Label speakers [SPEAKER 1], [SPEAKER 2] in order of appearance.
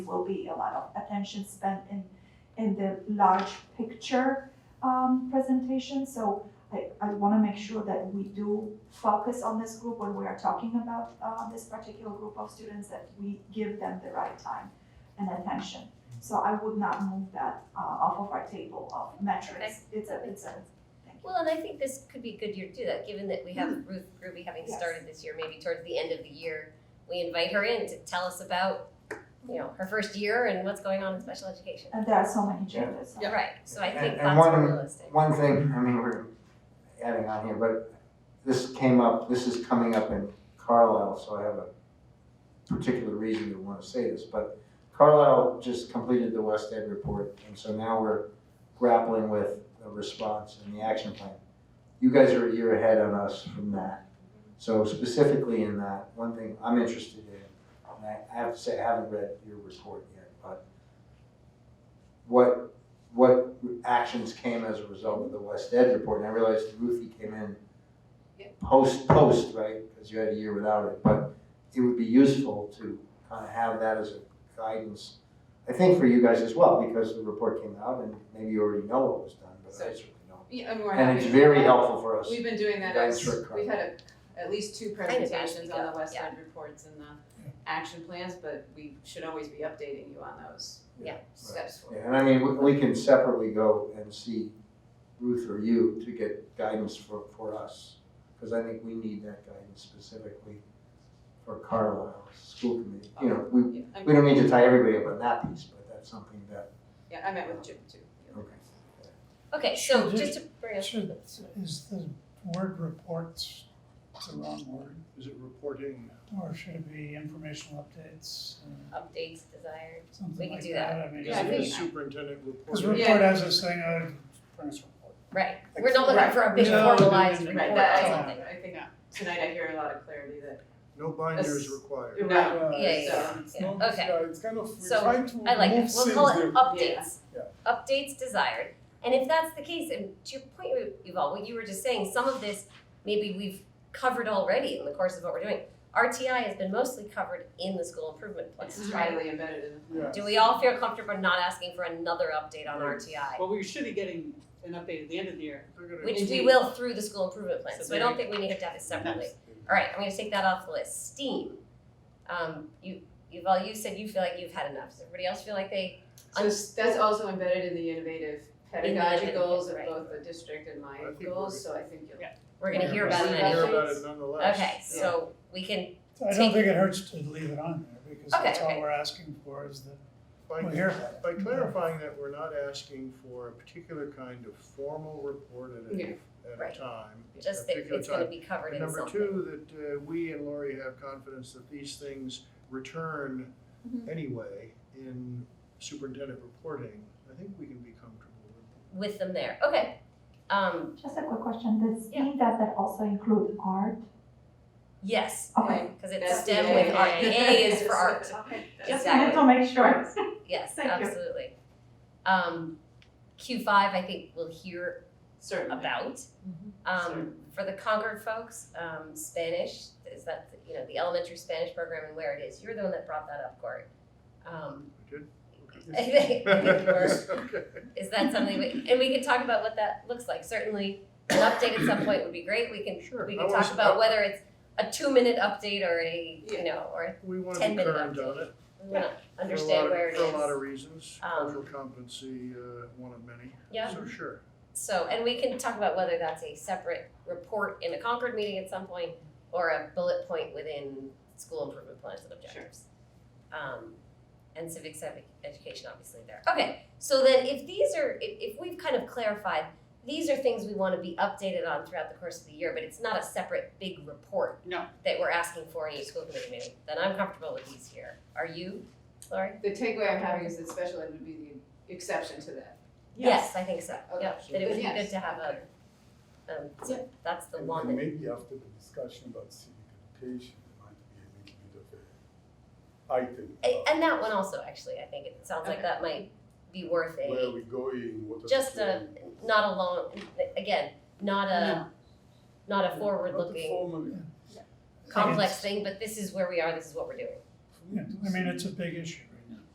[SPEAKER 1] will be a lot of attention spent in, in the large picture um, presentation. So I, I want to make sure that we do focus on this group when we are talking about uh, this particular group of students, that we give them the right time and attention. So I would not move that uh, off of our table of metrics. It's a,
[SPEAKER 2] That makes
[SPEAKER 1] it's a,
[SPEAKER 2] Well, and I think this could be a good year to do that, given that we have Ruth Ruby having
[SPEAKER 1] Yes.
[SPEAKER 2] started this year, maybe towards the end of the year, we invite her in to tell us about, you know, her first year and what's going on in special education.
[SPEAKER 1] and there are so many changes.
[SPEAKER 2] Right, so I
[SPEAKER 3] And-
[SPEAKER 2] think
[SPEAKER 3] and
[SPEAKER 2] that's
[SPEAKER 3] one-
[SPEAKER 2] realistic.
[SPEAKER 3] One thing, I mean, we're adding on here, but this came up, this is coming up in Carlisle, so I have a particular reason to want to say this, but Carlisle just completed the West Ed report, and so now we're grappling with the response and the action plan. You guys are a year ahead on us from that. So specifically in that, one thing I'm interested in, and I I have to say, I haven't read your report yet, but what, what actions came as a result of the West Ed report, and I realized Ruthie came in post, post, right, because you had a year without it, but it would be useful to kind of have that as a guidance, I think for you guys as well, because the report came out, and maybe you already know what was done, but I
[SPEAKER 4] So-
[SPEAKER 3] certainly don't.
[SPEAKER 4] Yeah, I mean, we're
[SPEAKER 3] And it's
[SPEAKER 4] having-
[SPEAKER 3] very helpful for us.
[SPEAKER 4] We've been doing that
[SPEAKER 3] Guys
[SPEAKER 4] as,
[SPEAKER 3] for-
[SPEAKER 4] we've had a, at least
[SPEAKER 2] of
[SPEAKER 4] two
[SPEAKER 2] as we
[SPEAKER 4] presentations
[SPEAKER 2] go,
[SPEAKER 4] on the West
[SPEAKER 2] yeah.
[SPEAKER 4] End reports and the action plans, but we should always be updating you on those
[SPEAKER 2] Yeah.
[SPEAKER 4] steps
[SPEAKER 3] Yeah,
[SPEAKER 4] forward.
[SPEAKER 3] And I mean, we, we can separately go and see Ruth or you to get guidance for, for us, because I think we need that guidance specifically for Carlisle School Committee. You know, we,
[SPEAKER 4] Yeah, I
[SPEAKER 3] we
[SPEAKER 4] mean,
[SPEAKER 3] don't mean to tie everybody up on that piece, but that's something that,
[SPEAKER 4] yeah, I met with Jim too. the other
[SPEAKER 3] Okay.
[SPEAKER 4] guy.
[SPEAKER 2] Okay, so
[SPEAKER 5] Should
[SPEAKER 2] just to bring us,
[SPEAKER 5] Should, is the word reports the wrong word,
[SPEAKER 6] Is it reporting?
[SPEAKER 5] or should it be informational updates, uh,
[SPEAKER 2] updates desired, We
[SPEAKER 5] something
[SPEAKER 2] can
[SPEAKER 5] like
[SPEAKER 2] do
[SPEAKER 5] that, I mean.
[SPEAKER 6] Is
[SPEAKER 4] Yeah, I
[SPEAKER 6] it a
[SPEAKER 4] think-
[SPEAKER 6] superintendent
[SPEAKER 5] Cause
[SPEAKER 6] report?
[SPEAKER 4] Yeah.
[SPEAKER 5] report has this thing, uh, furnace report.
[SPEAKER 2] right, we're not looking
[SPEAKER 4] Right.
[SPEAKER 2] for a big
[SPEAKER 5] No, no, no,
[SPEAKER 2] formalized
[SPEAKER 5] no,
[SPEAKER 2] report
[SPEAKER 4] Right,
[SPEAKER 5] no.
[SPEAKER 2] or
[SPEAKER 4] that,
[SPEAKER 5] Yeah.
[SPEAKER 4] I
[SPEAKER 2] something.
[SPEAKER 4] think, I think tonight I hear a lot of clarity that,
[SPEAKER 6] No binders
[SPEAKER 4] Yes.
[SPEAKER 6] required.
[SPEAKER 4] no,
[SPEAKER 5] Uh,
[SPEAKER 2] Yeah, yeah,
[SPEAKER 5] so
[SPEAKER 2] yeah.
[SPEAKER 5] it's
[SPEAKER 2] Yeah.
[SPEAKER 5] not-
[SPEAKER 2] Okay.
[SPEAKER 5] It's kind of,
[SPEAKER 2] So,
[SPEAKER 5] we're trying to move
[SPEAKER 2] I like it. We'll call it
[SPEAKER 5] things
[SPEAKER 2] updates.
[SPEAKER 6] Yeah.
[SPEAKER 2] Updates desired. And if that's the case, and to your point, Yuval, what you were just saying, some of this maybe we've covered already in the course of what we're doing. RTI has been mostly covered in the school improvement plan,
[SPEAKER 4] it's
[SPEAKER 2] right?
[SPEAKER 4] highly embedded in the.
[SPEAKER 5] there. Yeah.
[SPEAKER 2] Do we all feel comfortable not asking for another update on RTI?
[SPEAKER 7] Well, we should be getting an update at the end of the year.
[SPEAKER 6] They're gonna-
[SPEAKER 2] Which we will through the school improvement plan,
[SPEAKER 7] So
[SPEAKER 2] so I don't think we need to have it separately. All right, I'm gonna take that off the list. STEAM. Um, you, Yuval, you said you feel like you've had enough. Does everybody else feel like they,
[SPEAKER 4] So s- that's also embedded in the innovative pedagogy
[SPEAKER 2] innovative,
[SPEAKER 4] goals of
[SPEAKER 2] right.
[SPEAKER 4] both the district and my
[SPEAKER 6] I think we're
[SPEAKER 4] goals, so I think you'll.
[SPEAKER 2] we're gonna hear
[SPEAKER 6] We're
[SPEAKER 2] about it
[SPEAKER 6] gonna
[SPEAKER 2] anyway?
[SPEAKER 6] Hear about it nonetheless.
[SPEAKER 2] Okay, so we can,
[SPEAKER 5] So I
[SPEAKER 2] Take-
[SPEAKER 5] don't think it hurts to leave it on there, because
[SPEAKER 2] Okay,
[SPEAKER 5] that's all
[SPEAKER 2] okay.
[SPEAKER 5] we're asking for is that
[SPEAKER 6] By-
[SPEAKER 5] we'll hear about it.
[SPEAKER 6] By clarifying that we're not asking for a particular kind of formal report at
[SPEAKER 4] Yeah.
[SPEAKER 6] a, at
[SPEAKER 2] Right.
[SPEAKER 6] a time. at a
[SPEAKER 2] just that
[SPEAKER 6] particular
[SPEAKER 2] it's gonna
[SPEAKER 6] time.
[SPEAKER 2] be covered
[SPEAKER 6] And
[SPEAKER 2] in
[SPEAKER 6] number
[SPEAKER 2] something.
[SPEAKER 6] two, that uh, we and Lori have confidence that these things return
[SPEAKER 2] Mm-hmm.
[SPEAKER 1] Mhm.
[SPEAKER 6] anyway in superintendent reporting. I think we can be comfortable with.
[SPEAKER 2] With them there, okay. Um,
[SPEAKER 1] Just a quick question, does STEAM, does that also include art?
[SPEAKER 2] yes,
[SPEAKER 1] Okay.
[SPEAKER 2] because it's
[SPEAKER 4] That's the
[SPEAKER 2] STEM with
[SPEAKER 4] A.
[SPEAKER 2] art, A is for art,
[SPEAKER 4] Okay.
[SPEAKER 1] Just wanted
[SPEAKER 2] Exactly.
[SPEAKER 1] to make sure.
[SPEAKER 2] yes,
[SPEAKER 1] Thank you.
[SPEAKER 2] absolutely. Um, Q five, I think we'll hear
[SPEAKER 4] Certainly.
[SPEAKER 2] about.
[SPEAKER 4] Mm-hmm.
[SPEAKER 2] Um, for the Concord folks, um, Spanish, is that, you know, the elementary Spanish program and where it is, you're the one that brought that up, Cory. Um,
[SPEAKER 6] it.
[SPEAKER 2] I
[SPEAKER 6] Okay.
[SPEAKER 2] think we were-
[SPEAKER 6] Okay.
[SPEAKER 2] Is that something we, and we can talk about what that looks like, certainly an update at some point would be great, we can,
[SPEAKER 6] Sure.
[SPEAKER 2] we
[SPEAKER 6] I
[SPEAKER 2] can
[SPEAKER 6] wanna
[SPEAKER 2] talk
[SPEAKER 6] s-
[SPEAKER 2] about
[SPEAKER 6] I-
[SPEAKER 2] whether it's a two-minute update or a, you know, or
[SPEAKER 6] We want to
[SPEAKER 2] 10
[SPEAKER 6] be
[SPEAKER 2] minute
[SPEAKER 6] current on it.
[SPEAKER 2] we wanna
[SPEAKER 6] for a
[SPEAKER 2] understand
[SPEAKER 6] lot of-
[SPEAKER 2] where it is.
[SPEAKER 6] For a lot of reasons,
[SPEAKER 2] Um,
[SPEAKER 6] cultural competency, uh, one of many,
[SPEAKER 2] Yeah,
[SPEAKER 6] so sure.
[SPEAKER 2] so, and we can talk about whether that's a separate report in a Concord meeting at some point, or a bullet point within school improvement plans and objectives. Um, and civic civic education obviously there. Okay, so then if these are, if, if we've kind of clarified, these are things we wanna be updated on throughout the course of the year, but it's not a separate big report.
[SPEAKER 7] No.
[SPEAKER 2] That we're asking for in each school committee meeting, then I'm comfortable with these here. Are you, Lori?
[SPEAKER 4] The takeaway I'm having is that special ed would be the exception to that.
[SPEAKER 2] Yes, I think so,
[SPEAKER 4] Okay.
[SPEAKER 2] yeah, that it would be
[SPEAKER 4] Yes.
[SPEAKER 2] good to have a, um, so that's the
[SPEAKER 8] And
[SPEAKER 2] one that
[SPEAKER 8] then maybe after the discussion about civic education, there might be a little bit of a item.
[SPEAKER 2] A-
[SPEAKER 8] about
[SPEAKER 2] And that one also, actually, I think it sounds like
[SPEAKER 4] Okay.
[SPEAKER 2] that might be worth
[SPEAKER 8] Where are
[SPEAKER 2] a,
[SPEAKER 8] we going, what are the.
[SPEAKER 2] just a,
[SPEAKER 8] plans?
[SPEAKER 2] not a long, again, not a, not a forward-looking,
[SPEAKER 8] Not a formal-
[SPEAKER 5] I think
[SPEAKER 2] complex thing, but this is where we are, this is what we're doing.
[SPEAKER 5] it's- Yeah, I mean, it's a big issue,